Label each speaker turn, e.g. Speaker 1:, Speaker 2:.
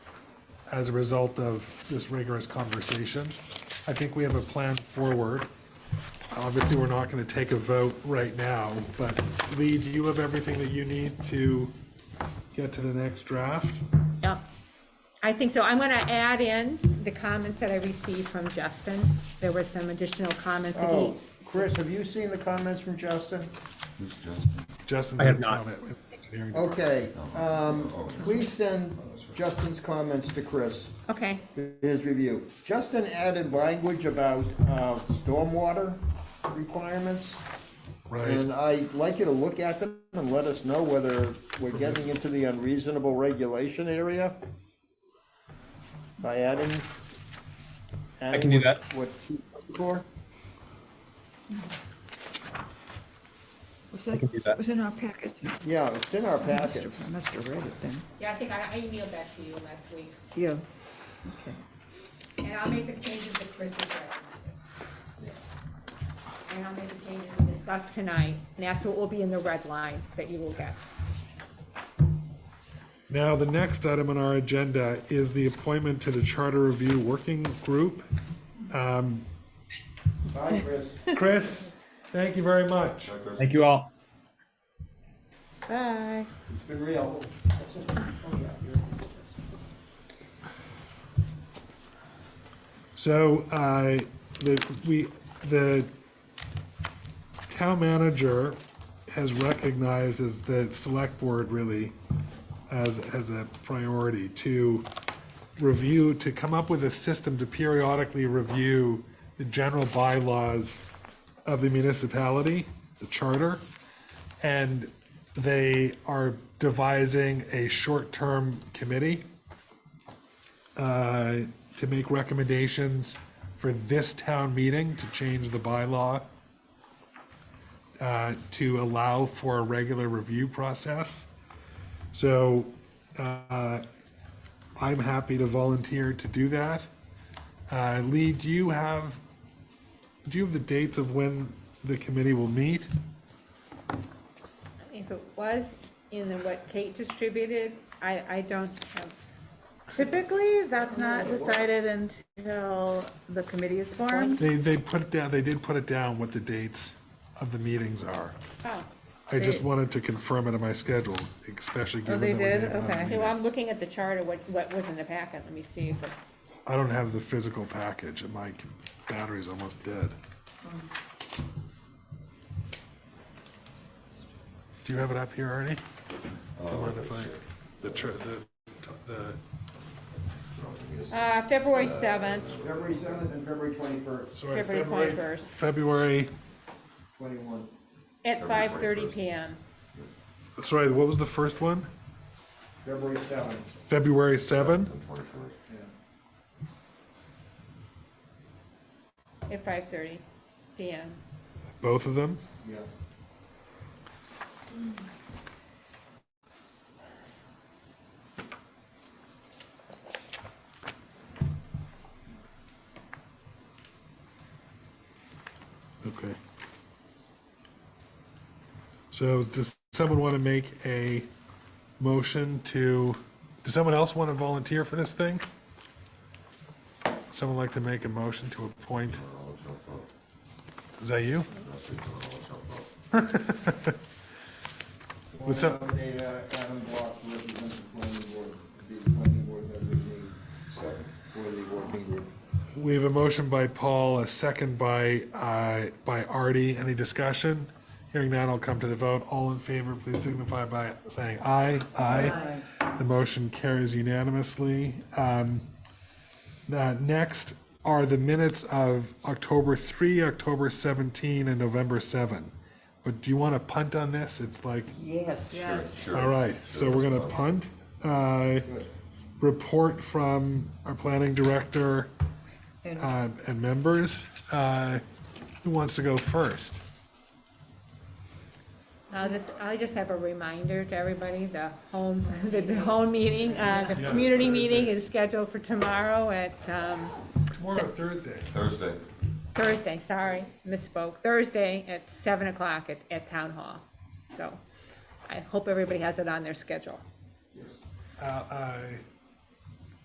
Speaker 1: as a result of this rigorous conversation. I think we have a plan forward. Obviously, we're not going to take a vote right now, but Lee, do you have everything that you need to get to the next draft?
Speaker 2: Yep. I think so. I'm going to add in the comments that I received from Justin. There were some additional comments that he,
Speaker 3: Oh, Chris, have you seen the comments from Justin?
Speaker 4: Who's Justin?
Speaker 1: Justin's
Speaker 5: I have
Speaker 1: in
Speaker 5: not.
Speaker 1: town at engineering. department.
Speaker 3: Okay, um, please send Justin's comments to Chris,
Speaker 2: okay,
Speaker 3: his review. Justin added language about, uh, stormwater requirements. And uh,
Speaker 1: Right,
Speaker 3: I'd like you to look at them and let us know whether we're getting into the unreasonable regulation area by adding.
Speaker 5: I can do
Speaker 3: adding
Speaker 5: that.
Speaker 3: What, for?
Speaker 6: Was
Speaker 5: can do that.
Speaker 6: that, was in our packet?
Speaker 3: Yeah, it's in our
Speaker 6: Must
Speaker 3: packets.
Speaker 6: have- I must have read it then.
Speaker 2: yeah, I think I I emailed that to you last week.
Speaker 6: Yeah.
Speaker 2: And I'll make the changes that Chris has recommended. And I'll make the changes we discussed tonight, and that's what will be in the red line that you will get.
Speaker 1: now, the next item on our agenda is the appointment to the Charter Review Working Group.
Speaker 3: Bye, Chris.
Speaker 1: Chris, thank you very much.
Speaker 5: Thank you all.
Speaker 2: Bye.
Speaker 3: It's been real.
Speaker 1: So, uh, the, we, the town manager has recognized as the select board really as, as a priority to review, to come up with a system to periodically review the general bylaws of the municipality, the charter, and they are devising a short-term committee uh, to make recommendations for this town meeting to change the bylaw uh, to allow for a regular review process. So uh, I'm happy to volunteer to do that. Uh, Lee, do you have, do you have the dates of when the committee will meet?
Speaker 2: If it was in the, what Kate distributed, I, I don't have,
Speaker 7: Typically, that's not decided until the committee is formed.
Speaker 1: They, they put it down, they did put it down what the dates of the meetings are.
Speaker 2: oh,
Speaker 1: I just
Speaker 7: They-
Speaker 1: wanted to confirm it in my schedule, especially
Speaker 7: Oh,
Speaker 1: given that
Speaker 7: they
Speaker 1: we
Speaker 7: did?
Speaker 1: didn't have a
Speaker 7: Okay.
Speaker 1: meeting.
Speaker 2: so I'm looking at the charter, what, what was in the packet, let me see if it.
Speaker 1: I don't have the physical package, and my battery's almost dead. Do you have it up here, Ernie? Do you mind if I, the, tr- the, the,
Speaker 2: Uh, February seventh,
Speaker 3: February seventh and February twenty-first,
Speaker 1: sorry,
Speaker 2: February
Speaker 1: February,
Speaker 2: 21st.
Speaker 1: February,
Speaker 3: twenty-one.
Speaker 2: at five thirty PM.
Speaker 1: sorry, what was the first one?
Speaker 3: February seventh.
Speaker 1: February 7?
Speaker 4: Twenty-first.
Speaker 2: At five thirty PM.
Speaker 1: Both of them?
Speaker 3: Yeah.
Speaker 1: Okay. So does someone want to make a motion to, does someone else want to volunteer for this thing? Someone like to make a motion to appoint? Is that you? What's up?
Speaker 3: Nominate, uh, Adam Block to represent the planning board, the planning board designee for the working group.
Speaker 1: We have a motion by Paul, a second by, uh, by Artie. Any discussion? Hearing none, I'll come to the vote. All in favor, please signify by saying aye. Aye. The motion carries unanimously. Um, uh, Next are the minutes of October 3, October 17, and November 7. But do you want to punt on this? It's like,
Speaker 7: Yes.
Speaker 1: all right, so we're going to punt. Uh, Report from our planning director uh, and members. Uh, Who wants to go first?
Speaker 2: I'll just, I'll just have a reminder to everybody, the home, the the home meeting, uh, the community meeting is scheduled for tomorrow at, um,
Speaker 1: Tomorrow, Thursday.
Speaker 4: Thursday.
Speaker 2: Thursday, sorry, misspoke, Thursday at seven o'clock at, at Town Hall. So I hope everybody has it on their schedule.
Speaker 1: Uh, I-